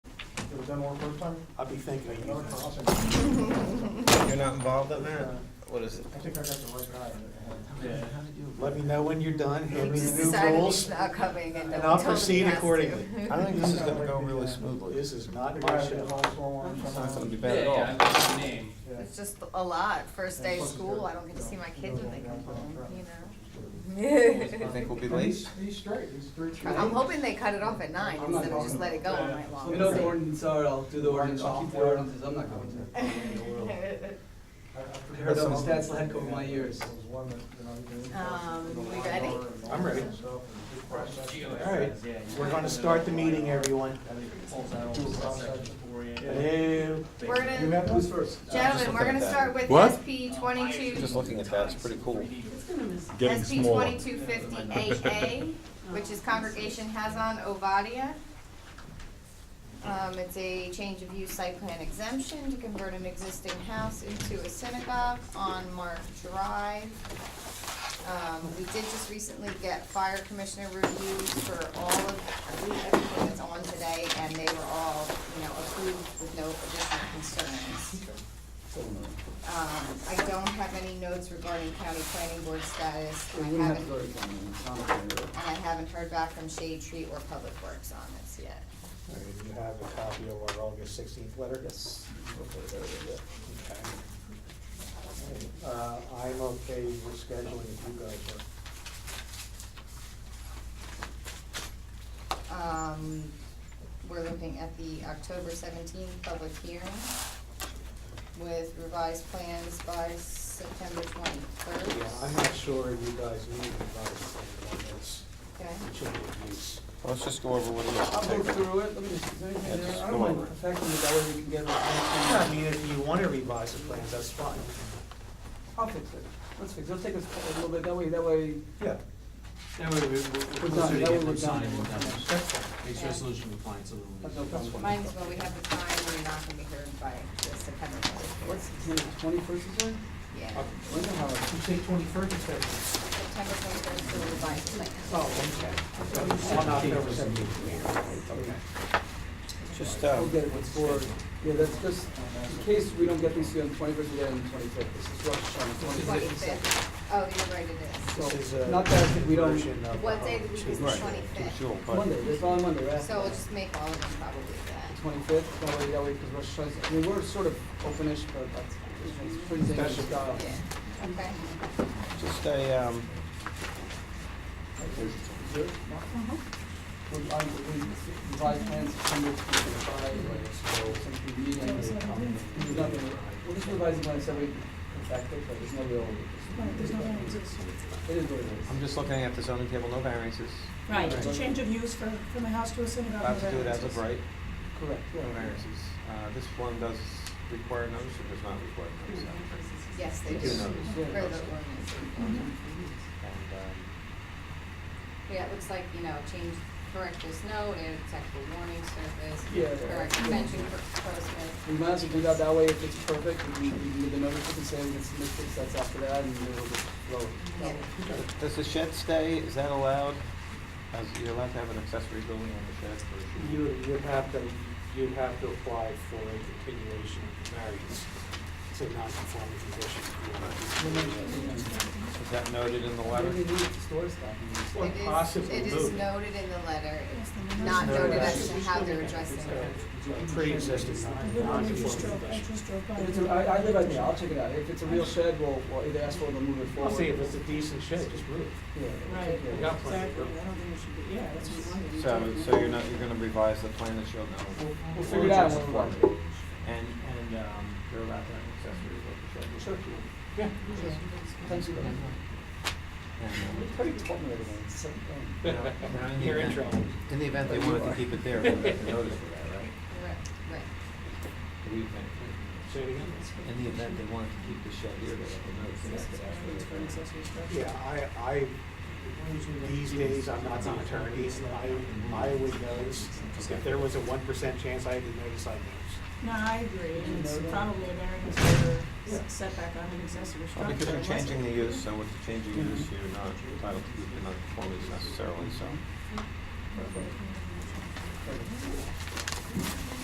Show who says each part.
Speaker 1: It was done all the first time?
Speaker 2: I'll be thinking of
Speaker 1: Another
Speaker 2: you.
Speaker 1: crossing.
Speaker 3: You're not involved in that?
Speaker 1: Uh,
Speaker 3: What is it?
Speaker 1: I think I got the right guy.
Speaker 2: Let me know when you're done,
Speaker 4: He
Speaker 2: hand me
Speaker 4: just
Speaker 2: the new
Speaker 4: decided
Speaker 2: rules.
Speaker 4: he's not coming and
Speaker 2: and
Speaker 4: then
Speaker 2: I'll
Speaker 4: we told him
Speaker 2: proceed
Speaker 4: he has to.
Speaker 2: accordingly.
Speaker 3: I think this is gonna go really smoothly.
Speaker 2: This
Speaker 3: It's
Speaker 2: is not
Speaker 1: The guy
Speaker 2: my
Speaker 1: that did all
Speaker 2: show.
Speaker 1: the stormwater
Speaker 3: not gonna be
Speaker 1: somehow.
Speaker 3: bad at all.
Speaker 5: Yeah, I like the name.
Speaker 1: Yeah.
Speaker 4: It's just a lot, first day of
Speaker 1: Plus it's
Speaker 4: school,
Speaker 1: got-
Speaker 4: I don't get to see my kids when they come home,
Speaker 3: You
Speaker 4: you
Speaker 3: think we'll be
Speaker 1: And
Speaker 3: late?
Speaker 1: he's- He's straight, he's three.
Speaker 4: know? I'm hoping they cut it off at nine
Speaker 6: I'm not
Speaker 4: instead of just
Speaker 6: talking
Speaker 4: let it go all night long.
Speaker 5: You know the ordinance are, I'll do the ordinance, I'll keep the ordinances, I'm not going to. I heard all the stats lack over my years.
Speaker 4: Um, we ready?
Speaker 2: I'm ready. All
Speaker 1: All
Speaker 2: right, we're gonna start the meeting, everyone. Hello.
Speaker 4: We're
Speaker 1: You
Speaker 4: gonna,
Speaker 1: have those first?
Speaker 4: Uh, gentlemen, we're
Speaker 3: looking at
Speaker 4: gonna
Speaker 3: that.
Speaker 4: start with
Speaker 7: What?
Speaker 4: SP twenty-two.
Speaker 3: Just looking at that, it's pretty cool.
Speaker 7: Getting
Speaker 4: SB
Speaker 7: smaller.
Speaker 4: twenty-two fifty-eight A, which is Congregation Hazan Ovadia. Um, it's a change of use site plan exemption to convert an existing house into a synagogue on Mark Drive. Um, we did just recently get fire commissioner reviews for all of, I believe, everything that's on today, and they were all, you know, approved with no additional concerns. Um, I don't have any notes regarding county planning board status, and I haven't, and I haven't heard back from Shade Tree or Public Works on this yet.
Speaker 2: All right, You have a copy of our August sixteenth letter? Yes. Uh, I'm okay with scheduling if you guys are.
Speaker 4: Um, we're looking at the October seventeenth public hearing with revised plans by September
Speaker 2: Yeah, I'm
Speaker 4: twenty-third.
Speaker 2: not sure you guys need advice on this,
Speaker 4: Okay,
Speaker 2: change of use.
Speaker 3: Let's just go over what it is.
Speaker 5: I'll go through it, let me just, is there
Speaker 3: Yeah,
Speaker 5: anything
Speaker 3: just
Speaker 5: there? I don't
Speaker 3: go
Speaker 5: mind
Speaker 3: over it.
Speaker 5: affecting it, that way we can get
Speaker 2: I
Speaker 5: it.
Speaker 2: mean, if you wanna revise the plans, that's fine.
Speaker 5: I'll fix it, let's fix it, let's take us a little bit, that way, that way,
Speaker 2: Yeah.
Speaker 8: That way, we- we-
Speaker 5: We're
Speaker 8: we're
Speaker 5: done.
Speaker 8: closer to
Speaker 5: That
Speaker 8: getting
Speaker 5: way we're
Speaker 8: them signed
Speaker 5: done.
Speaker 8: and done.
Speaker 2: That's fine.
Speaker 8: Makes resolution compliance a little
Speaker 5: that's no
Speaker 8: bit.
Speaker 5: problem.
Speaker 4: mine's when we have the time, we're not gonna be heard by the September
Speaker 5: What's,
Speaker 4: twenty-third.
Speaker 5: twenty-first is there?
Speaker 4: Yeah,
Speaker 5: When's the holiday?
Speaker 2: You say twenty-first instead of.
Speaker 4: September twenty-third is the revised plan.
Speaker 5: Uh, Oh, okay.
Speaker 2: On October 17th.
Speaker 3: Just,
Speaker 5: We'll
Speaker 3: um,
Speaker 5: get it for, yeah, that's just, in case we don't get these here on the twenty-first, we get it on the twenty-fifth, this is Rosh Hashanah, twenty-fifth.
Speaker 4: Twenty-fifth, oh, you're right, it
Speaker 5: So,
Speaker 2: This is a
Speaker 5: not that we don't-
Speaker 2: version of- uh,
Speaker 4: What day of the week is the
Speaker 3: Right.
Speaker 4: twenty-fifth?
Speaker 3: sure, but
Speaker 5: Monday, it's on Monday, right?
Speaker 4: So we'll just make all of them probably that.
Speaker 5: Twenty-fifth, that way, that way, because Rosh Hashanah, I mean, we're sort of openish, but that's, it's pretty dangerous style.
Speaker 4: Yeah, okay.
Speaker 3: just a, um,
Speaker 5: We, I, we revised plans September twenty-five, so something meeting, there's nothing, we'll just revise the plans every, effective, but there's no real. There's no variances. It is what it is.
Speaker 3: I'm just looking at the zoning table, no variances.
Speaker 9: Right, it's a change of use from, from a house to a synagogue.
Speaker 3: About to do it as of right,
Speaker 5: Correct,
Speaker 3: no
Speaker 5: yeah.
Speaker 3: variances. Uh, this one does require notice or does not require notice?
Speaker 4: Yes, they
Speaker 3: You
Speaker 4: do.
Speaker 3: do notice.
Speaker 4: For the ordinance.
Speaker 5: Mm-hmm.
Speaker 3: And, um,
Speaker 4: Yeah, it looks like, you know, change, correct this note, add textual warning surface,
Speaker 5: Yeah.
Speaker 4: correct mention for
Speaker 5: We
Speaker 4: postman.
Speaker 5: might as well do that that way, if it's perfect, we can, we can give the notice, we can say we can submit six sets after that, and then we'll just roll it.
Speaker 4: Yeah.
Speaker 3: Does the shed stay, is that allowed? As, you're allowed to have an accessory building on the shed or? should-
Speaker 2: You, you'd have to, you'd have to apply for a continuation variance to non-conforming condition.
Speaker 3: Is that noted in the
Speaker 5: Why do
Speaker 3: letter?
Speaker 5: we need to store stuff?
Speaker 2: Or
Speaker 4: It is-
Speaker 2: possible
Speaker 4: It is
Speaker 2: move.
Speaker 4: noted in the letter, it's
Speaker 9: Yes,
Speaker 4: not
Speaker 9: the
Speaker 4: noted as
Speaker 9: notice.
Speaker 4: to how they're addressing it.
Speaker 2: Pre-existing
Speaker 9: Literally,
Speaker 2: non-
Speaker 9: we
Speaker 2: conforming
Speaker 9: just drove, I
Speaker 2: condition.
Speaker 9: just drove by.
Speaker 5: If it's, a- I, I live out there, I'll check it out, if it's a real shed, we'll, we'll either ask for it or move it
Speaker 2: I'll
Speaker 5: forward.
Speaker 2: say if it's a decent shed, just move.
Speaker 5: Yeah.
Speaker 9: Right,
Speaker 5: yeah.
Speaker 2: got plenty of
Speaker 9: exactly,
Speaker 2: room.
Speaker 9: I don't think it should be, yeah, that's what we wanted.
Speaker 3: So, so you're not, you're gonna revise the plan that you'll know?
Speaker 5: We'll figure it out when we want it.
Speaker 3: And, and, um, you're allowed to have an accessory building shed.
Speaker 5: Sure.
Speaker 2: Yeah.
Speaker 5: Thanks for that.
Speaker 3: And, um,
Speaker 5: It's pretty important, everything, it's so, um,
Speaker 3: Now,
Speaker 2: You're in
Speaker 3: yeah.
Speaker 2: trouble.
Speaker 3: In the event they wanted to keep it there, we'd have to notice for that, right?
Speaker 4: Right, right.
Speaker 3: Do we think-
Speaker 2: Say it again.
Speaker 3: In the event they wanted to keep the shed here, they have to notice. and that's
Speaker 9: It's for
Speaker 3: actually-
Speaker 9: an accessory structure.
Speaker 2: Yeah, I, I, these days, I'm not an attorney, I, I would notice, if there was a one percent chance I had to notice, I'd notice.
Speaker 9: No, I agree, and it's probably a variance for s- setback on an accessory
Speaker 3: Well,
Speaker 9: structure.
Speaker 3: because you're
Speaker 9: It wasn't-
Speaker 3: changing the use, so with the change of use, you're not entitled to keep the non-conformance necessarily, so.